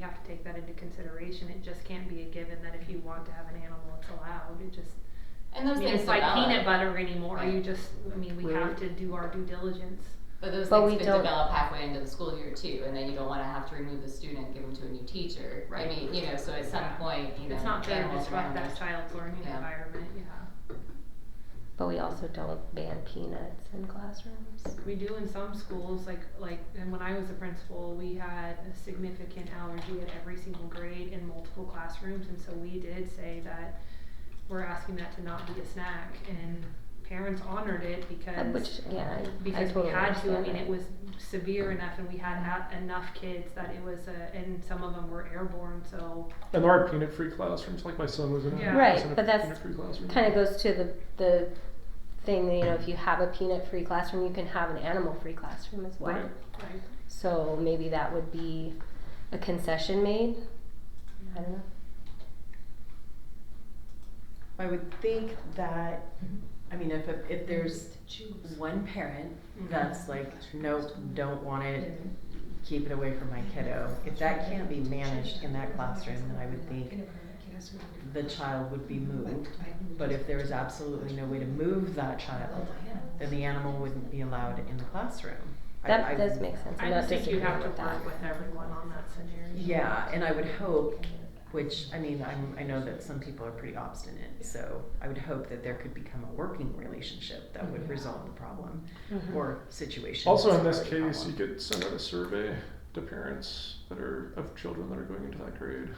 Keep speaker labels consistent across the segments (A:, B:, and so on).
A: have to take that into consideration. It just can't be a given that if you want to have an animal, it's allowed. It just,
B: And
A: I
B: those
A: mean,
B: things
A: it's like
B: develop,
A: peanut butter anymore. You
B: Right.
A: just, I mean, we
C: We're-
A: have to do our due diligence.
B: but those
C: But we
B: things could
C: don't-
B: develop halfway into the school year too, and then you don't want to have to remove the student, give them to a new teacher.
A: Right.
B: I mean, you know, so at some point, you know,
A: It's not fair to
B: animals are
A: disrupt that
B: animals.
A: child's learning
B: Yeah.
A: environment, yeah.
C: But we also don't ban peanuts in classrooms.
A: We do in some schools, like, like, and when I was a principal, we had a significant allergy at every single grade in multiple classrooms, and so we did say that we're asking that to not be a snack, and parents honored it because.
C: Uh, Which, yeah, I- I
A: because we
C: totally
A: had to. I
C: understand
A: mean,
C: that.
A: it was severe enough, and we had a- enough kids that it was, a, and some of them were airborne. So
D: And there are peanut free classrooms, like my son was in a
A: Yeah.
C: Right,
D: was in a
C: but that's
D: peanut free classroom.
C: Kind of goes to the, the thing that, you know, if you have a peanut-free classroom, you can have an animal-free classroom as well.
D: Right.
A: like,
C: So maybe that would be a concession made, I don't know.
E: I would think that, I mean, if, if there's one parent
C: Mm-hmm.
E: that's like, nope, don't want it, keep it away from my kiddo. If that can't be managed in that classroom, then I would think the child would be moved. But if there is absolutely no way to move that child, then the animal wouldn't be allowed in the classroom. I-
C: That
E: I-
C: does make sense. I'm
A: I
C: not
A: just think you
C: disagreeing
A: have to
C: with that.
A: work with everyone on that scenario.
E: Yeah, and I would hope, which, I mean, I'm, I know that some people are pretty obstinate, so I would hope that there could become a working relationship that
C: Mm-hmm.
E: would resolve the problem
C: Mhm.
E: or situation.
D: Also,
E: that's
D: in this
E: already a
D: case, you
E: problem.
D: could send out a survey to parents that are of children that are going into that grade.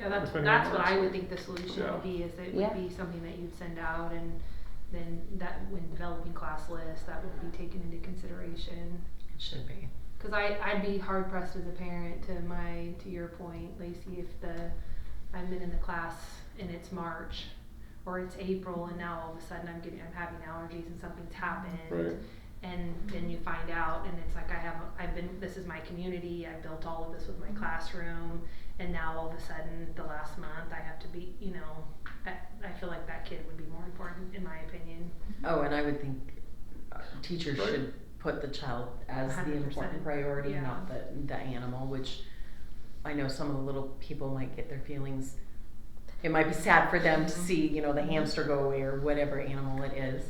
A: Yeah, that's,
D: If anyone
A: that's what
D: wants
A: I
D: it.
A: would think the solution
D: Yeah.
A: would be, is it
C: Yeah.
A: would be something that you'd send out and then that, when developing class lists, that would be taken into consideration.
E: It should be.
A: Cause I, I'd be hard pressed as a parent to my, to your point, Lacey, if the, I've been in the class and it's March or it's April and now all of a sudden I'm getting, I'm having allergies and something's happened.
D: Right.
A: And then you find out and it's like I have, a- I've been, this is my community, I built all of this with my classroom. And now all of a sudden, the last month, I have to be, you know, I, I feel like that kid would be more important in my opinion.
E: Oh, and I would think uh, teachers
D: Right.
E: should put the child as the
A: 100%,
E: important priority,
A: yeah.
E: not the, the animal, which I know some of the little people might get their feelings. It might be sad for them to see, you know, the hamster go away or whatever animal it is.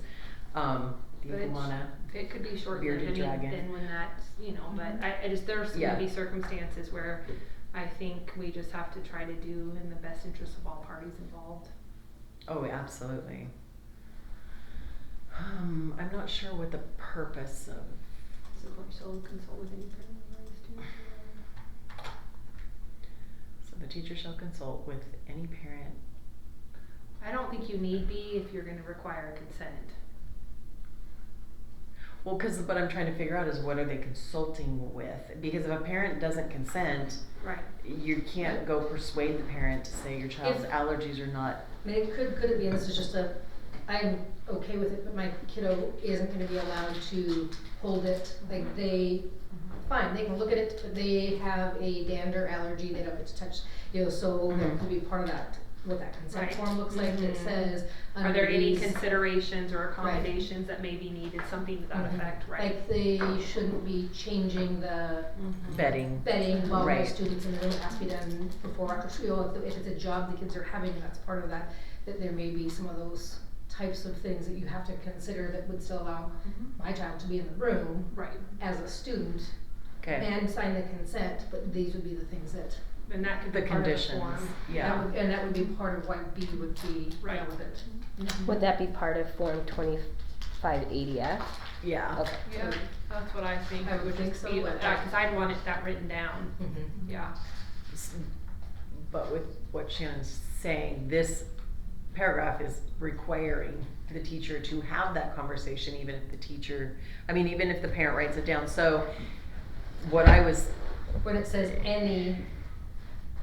E: Um, the
A: But it's-
E: iguana.
A: It could be short lived.
E: Bearded
A: I mean,
E: dragon.
A: and when that's you know, but I, I just there's
E: Yeah.
A: gonna be circumstances where I think we just have to try to do in the best interest of all parties involved.
E: Oh, absolutely. Um, I'm not sure what the purpose of.
A: So we shall consult with any parent advice too.
E: So the teacher shall consult with any parent.
A: I don't think you need be if you're gonna require consent.
E: Well, because what I'm trying to figure out is what are they consulting with? Because if a parent doesn't consent,
A: Right.
E: you can't go persuade the parent to say your child's
F: If-
E: allergies are not.
F: I mean, it could, could it be, and this is just a, I'm okay with it, but my kiddo isn't gonna be allowed to hold it, like they, fine, they can look at it, but they have a dander allergy, they don't get to touch, you know, so
E: Mhm.
F: that could be part of that, what that consent
A: Right.
F: form looks like, that
A: Mhm.
F: says,
A: Are there
F: under
A: any
F: these-
A: considerations or accommodations that may be needed, something to that
F: Mhm.
E: Mm-hmm.
A: effect, right?
F: Like, they shouldn't be changing the
A: Mm-hmm.
E: Bedding.
F: bedding while
E: Right.
F: the students in the room, it has to be done before, after school, if, if it's a job the kids are having, and that's part of that, that there may be some of those types of things that you have to consider that would still allow my child to be in the room
A: Right,
F: as a student
E: Okay.
F: and sign the consent, but these would be the things that,
A: and that could
E: The
A: be part of the
E: conditions.
A: form.
F: that
E: Yeah.
F: would, and that would be part of why B would be
A: Right.
F: relevant.
C: Would that be part of Form 2580F?
E: Yeah.
C: Okay.
A: Yeah, that's what I think,
F: I
A: it would
F: think
A: just
F: so,
A: be,
F: but-
A: that, Mm-hmm. cause I'd want it, that written down,
E: Mm-hmm.
A: yeah.
E: S- But with what Shannon's saying, this paragraph is requiring the teacher to have that conversation, even if the teacher, I mean, even if the parent writes it down. So what I was,
F: When it says any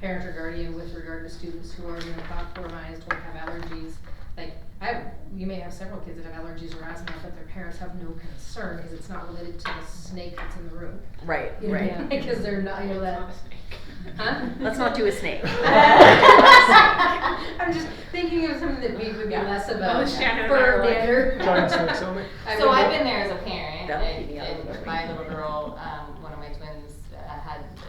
F: parent or guardian with regard to students who are immunocompromised or have allergies, like, I, you may have several kids that have allergies or asthma, but their parents have no concern, cause it's not related to the snake that's in the room.
E: right,
F: You know,
E: right.
F: Cause they're not, you know, that.
A: It's not
F: Huh?
E: Let's not do a snake.
F: I'm just thinking of something that we would be less of
A: Oh,
F: a
A: Shannon and I
F: firm
A: were like-
F: banner.
D: Giant snakes only.
F: I
B: So
F: would-
B: I've been there as a parent,
E: That would
B: and,
E: be the
B: and
E: other way.
B: my little um, uh,